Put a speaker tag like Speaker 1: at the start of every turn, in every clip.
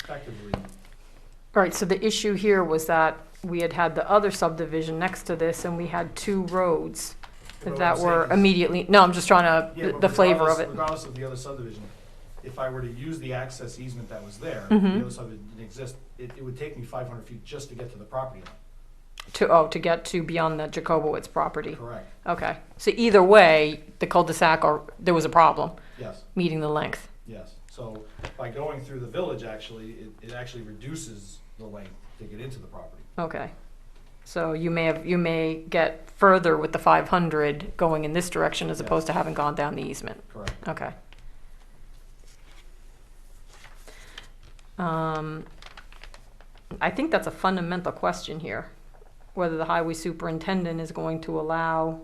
Speaker 1: effectively.
Speaker 2: All right, so the issue here was that we had had the other subdivision next to this, and we had two roads
Speaker 1: But what
Speaker 2: that
Speaker 1: I'm saying
Speaker 2: were
Speaker 1: is-
Speaker 2: immediately, no, I'm just trying
Speaker 1: Yeah,
Speaker 2: to,
Speaker 1: but
Speaker 2: the flavor of
Speaker 1: regardless-
Speaker 2: it.
Speaker 1: Regardless of the other subdivision, if I were to use the access easement that was there,
Speaker 2: Mhm.
Speaker 1: the other subdivision didn't exist, it, it would take me five hundred feet just to get to the property line,
Speaker 2: To, oh, to get to beyond the Jacobowitz property.
Speaker 1: correct?
Speaker 2: Okay, so either way, the cul-de-sac, or, there was a problem
Speaker 1: Yes,
Speaker 2: meeting the length.
Speaker 1: yes. So by going through the village, actually, it, it actually reduces the length to get into the property.
Speaker 2: Okay. So you may have, you may get further with the 500 going in this direction as
Speaker 1: Yes.
Speaker 2: opposed to having gone down the easement.
Speaker 1: Correct.
Speaker 2: Okay. Um, I think that's a fundamental question here, whether the highway superintendent is going to allow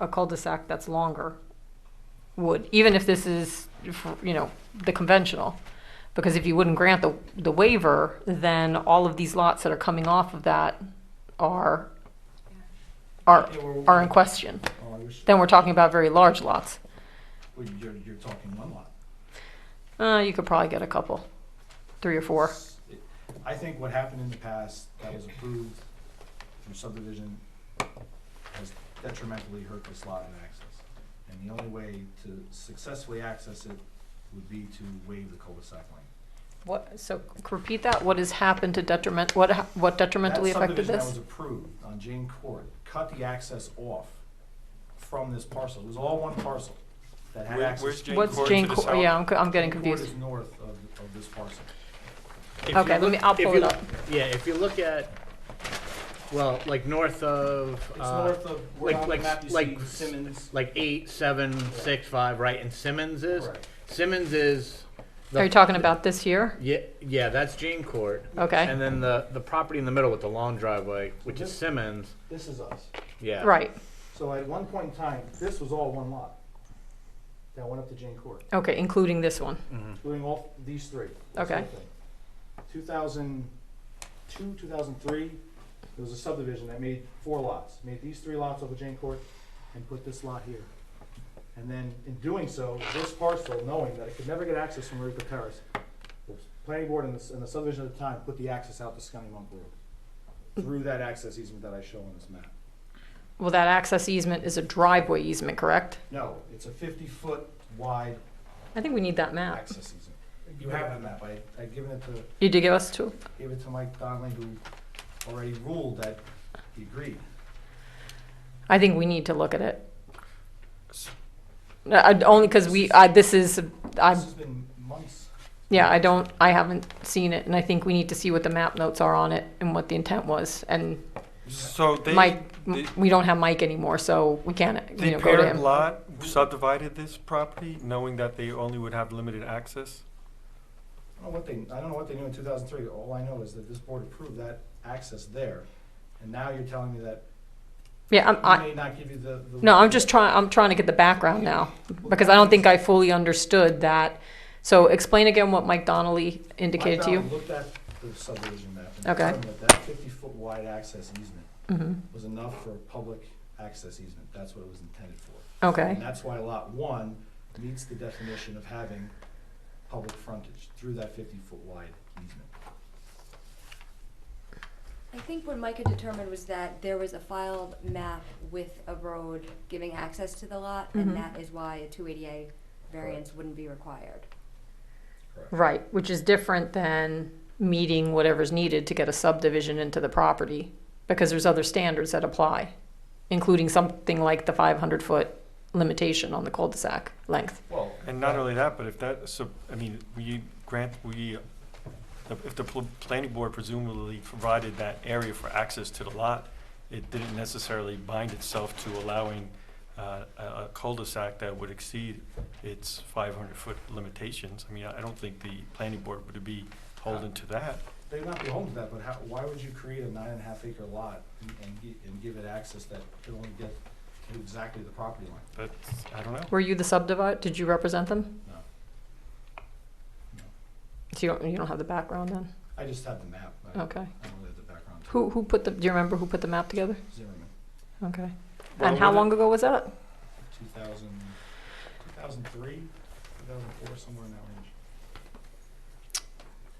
Speaker 2: a cul-de-sac that's longer. Would, even if this is, you know, the conventional. Because if you wouldn't grant the, the waiver, then all of these lots that are coming off of that are, are,
Speaker 1: Yeah, we're-
Speaker 2: are in question.
Speaker 1: Oh, I wish,
Speaker 2: Then we're talking about very large lots.
Speaker 1: well, you're, you're talking one lot.
Speaker 2: Uh, you could probably get a couple, three or four.
Speaker 1: I think what happened in the past that was approved through subdivision has detrimentally hurt this lot in access. And the only way to successfully access it would be to waive the cul-de-sac lane.
Speaker 2: What, so c- repeat that, what has happened to detriment, what, ha- what detrimentally affected
Speaker 1: That subdivision that was
Speaker 2: this?
Speaker 1: approved on Jane Court cut the access off from this parcel. It was all one parcel that had
Speaker 3: Where-
Speaker 1: access.
Speaker 3: where's Jane
Speaker 2: What's
Speaker 3: Court
Speaker 2: Jane,
Speaker 3: to the
Speaker 2: Cor-
Speaker 3: south?
Speaker 2: yeah, I'm, c- I'm getting
Speaker 1: Jane Court
Speaker 2: confused.
Speaker 1: is north of, of this parcel.
Speaker 4: If you
Speaker 2: Okay, let me,
Speaker 4: look-
Speaker 2: I'll
Speaker 4: if
Speaker 2: pull
Speaker 4: you
Speaker 2: it up.
Speaker 4: look- Yeah, if you look at, well, like north of,
Speaker 1: It's
Speaker 4: uh,
Speaker 1: north of, where
Speaker 4: like-
Speaker 1: on the
Speaker 4: like-
Speaker 1: map you see
Speaker 4: like-
Speaker 1: Simmons.
Speaker 4: like eight, seven, six, five, right, and Simmons is?
Speaker 1: Correct.
Speaker 4: Simmons is. the-
Speaker 2: Are you talking about this here?
Speaker 4: Yeah, yeah, that's Jane Court.
Speaker 2: Okay,
Speaker 4: And then the, the property in the middle with the long driveway, which is
Speaker 1: This-
Speaker 4: Simmons,
Speaker 1: This is us.
Speaker 4: yeah.
Speaker 2: right,
Speaker 1: So at one point in time, this was all one lot. That went up to Jane Court,
Speaker 2: okay, including this one.
Speaker 4: Mm-hmm.
Speaker 1: including all these three. this
Speaker 2: Okay.
Speaker 1: whole thing. 2002, 2003, there was a subdivision that made four lots, made these three lots over Jane Court and put this lot here. And then in doing so, this parcel, knowing that it could never get access from Rico Terrace, the planning board and the, s- and the subdivision at the time put the access out to Scunny Monk Road through that access easement that I show on this map.
Speaker 2: Well, that access easement is a driveway easement, correct?
Speaker 1: No, it's a 50-foot wide
Speaker 2: I think we need that map.
Speaker 1: access easement. You have the map, I, I'd given it to,
Speaker 2: You did give us two?
Speaker 1: gave it to Mike Donnelly, who already ruled that he agreed.
Speaker 2: I think we need to look at it. No, I, only because we, I, this is,
Speaker 1: This
Speaker 2: I'm
Speaker 1: has been months.
Speaker 2: Yeah, I don't, I haven't seen it, and I think we need to see what the map notes are on it and what the intent was. And
Speaker 3: So they,
Speaker 2: Mike,
Speaker 3: they-
Speaker 2: we don't have Mike anymore, so we can't, you
Speaker 3: they
Speaker 2: know, go to
Speaker 3: paired
Speaker 2: him.
Speaker 3: lot subdivided this property, knowing that they only would have limited access?
Speaker 1: I don't know what they, I don't know what they knew in two thousand three. All I know is that this board approved that access there. And now you're telling me that
Speaker 2: Yeah, I'm,
Speaker 1: we
Speaker 2: I,
Speaker 1: may not give you the. the-
Speaker 2: no, I'm just trying, I'm trying to get the background now, because I don't think I fully understood that. So explain again what Mike Donnelly indicated to
Speaker 1: Mike
Speaker 2: you.
Speaker 1: Donnelly Looked at the subdivision map and
Speaker 2: Okay.
Speaker 1: determined that that fifty-foot wide access easement
Speaker 2: hmm
Speaker 1: was enough for a public access easement. That's what it was intended for.
Speaker 2: okay,
Speaker 1: And that's why lot one meets the definition of having public frontage through that fifty-foot wide easement.
Speaker 5: I think what Micah determined was that there was a filed map with a road giving access to the lot,
Speaker 2: Mhm.
Speaker 5: and that is why a two eighty-eight variance wouldn't be required.
Speaker 2: right, which is different than meeting whatever's needed to get a subdivision into the property, because there's other standards that apply, including something like the five hundred foot limitation on the cul-de-sac length.
Speaker 1: Well.
Speaker 3: And not only that, but if that, so, I mean, we grant, we, if the pl- planning board presumably provided that area for access to the lot, it didn't necessarily bind itself to allowing uh, a a cul-de-sac that would exceed its 500-foot limitations. I mean, I I don't think the planning board would be holding to that.
Speaker 1: They'd not be home to that, but how, why would you create a nine and a half acre lot and, and gi- and give it access that could only get to exactly the property line?
Speaker 3: But, I don't know.
Speaker 2: Were you the subdivide? Did you represent them?
Speaker 1: No. No.
Speaker 2: So you don't, you don't have the background then?
Speaker 1: I just have the map. I I don't
Speaker 2: Okay.
Speaker 1: really have the background. to
Speaker 2: Who, who put the, do you remember who put the map together?
Speaker 1: Zimmerman,
Speaker 2: Okay.
Speaker 3: Well,
Speaker 2: And how
Speaker 3: would it-
Speaker 2: long ago was that?
Speaker 1: two thousand, two thousand three, two thousand four, somewhere in that range.